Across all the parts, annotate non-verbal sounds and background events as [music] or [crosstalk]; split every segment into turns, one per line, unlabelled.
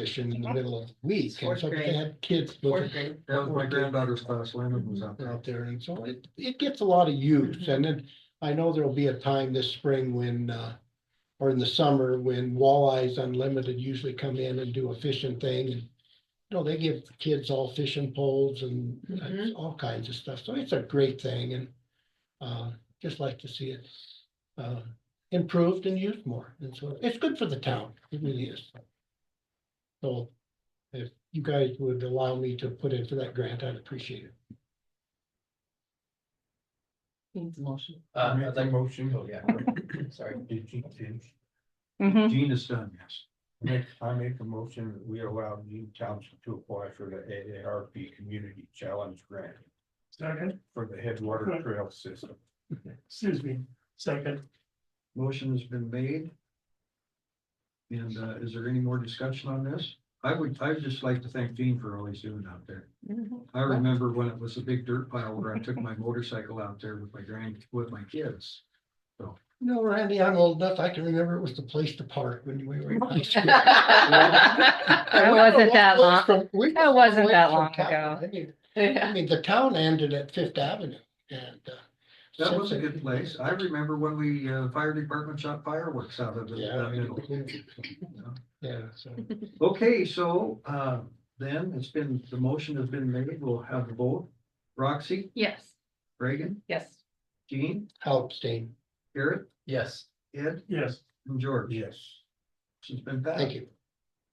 fishing in the middle of the week. And
Fourth
so they
grade.
had kids
Fourth
looking
grade.
That was my granddaughter's class, Landon was out there.
out there. And so it, it gets a lot of use. And then I know there'll be a time this spring when, uh, or in the summer when walleyes unlimited usually come in and do a fishing thing. And You know, they give kids all fishing poles and uh,
Mhm.
all kinds of stuff. So it's a great thing and, uh, just like to see it, uh, improved and used more. And so it's good for the town. It really is. So if you guys would allow me to put in for that grant, I'd appreciate it.
Needs a motion.
Uh,
Make
I'd
the
like,
motion.
oh,
[laughs]
yeah, sorry.
Did Gene finish?
Mhm.
Gene is done, yes. Make, I make a motion that we allow Gene Township to apply for the AARP Community Challenge Grant
Second,
for the Headwater Trail System.
excuse me, second,
Motion has been made. And uh, is there any more discussion on this? I would, I'd just like to thank Gene for all he's doing out there. I remember when it was a big dirt pile where I took my motorcycle out there with my grand, with my kids.
No, Randy, I'm old enough. I can remember it was the place to park when we were in
[laughs]
high school.
That wasn't that long. That wasn't that long ago.
ago. I
Yeah.
mean, the town ended at Fifth Avenue and. uh,
That was a
since
good
then-
place. I remember when we, uh, fire department shot fireworks out of the
Yeah.
that
I mean,
middle.
Yeah, so
Okay, so, uh, then it's been, the motion has been made. We'll have the vote. [laughs] Roxy,
Yes.
Reagan,
Yes.
Gene,
help Stain.
Garrett,
Yes,
Ed,
yes.
and George.
Yes.
It's been passed.
Thank you.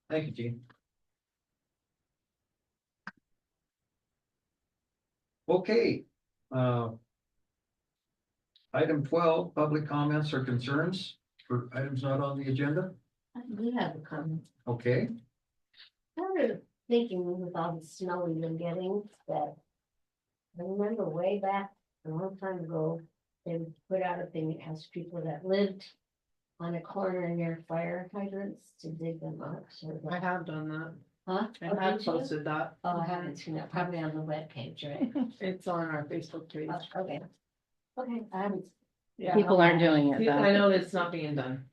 Thank you, Gene. Okay, uh. Item twelve, public comments or concerns for items not on the agenda,
I do have a comment.
okay?
Started thinking with all the snow we've been getting that. I remember way back, a long time ago, they would put out a thing that asked people that lived. On a corner near fire hydrants to dig them up, so.
I have done that.
Huh?
I
Oh,
have
did you?
posted that.
Oh, I haven't seen that, probably on the
[laughs]
webpage, right?
It's on our Facebook page.
Oh, Okay. Okay, I haven't,
Yeah.
People aren't doing it
I
though.
know it's not being done.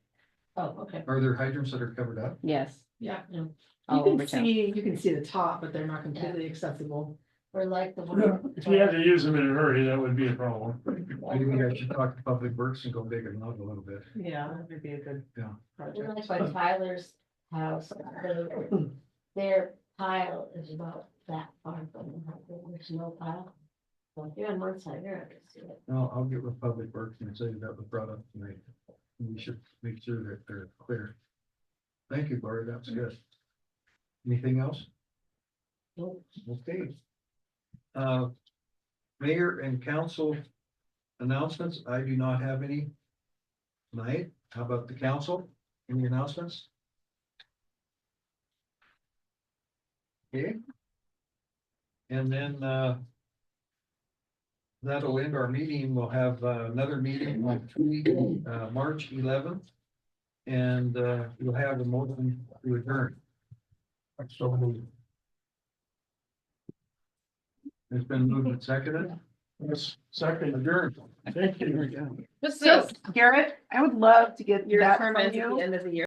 oh, okay.
Are there hydrants that are covered up?
Yes.
Yeah. You
All over
can
town.
see, you can see the top, but they're not completely accessible.
We're like the one.
If you had to use them in a hurry, that would be a problem.
Maybe I should talk to Public Works and go big and loud a little bit.
Yeah, that would be a good.
Yeah.
We're
Project.
like by Tyler's house, they- their pile is about that far from the house, there's no pile. So if you're on one side, you're not gonna see it.
No, I'll get with Public Works and say that was brought up tonight. We should make sure that they're clear. Thank you, Barry, that's good. Anything else?
Nope.
Okay. Uh, Mayor and council announcements, I do not have any tonight. How about the council? Any announcements? Okay. And then, uh, that'll end our meeting. We'll have uh, another meeting on Tuesday, uh, March eleventh. And, uh, we'll have a motion to adjourn. So moved. It's been moved and seconded.
Yes, second,
Adjourned.
thank you.
So Garrett, I would love to get
Your
that
term
from
ends at
you.
the end of the year.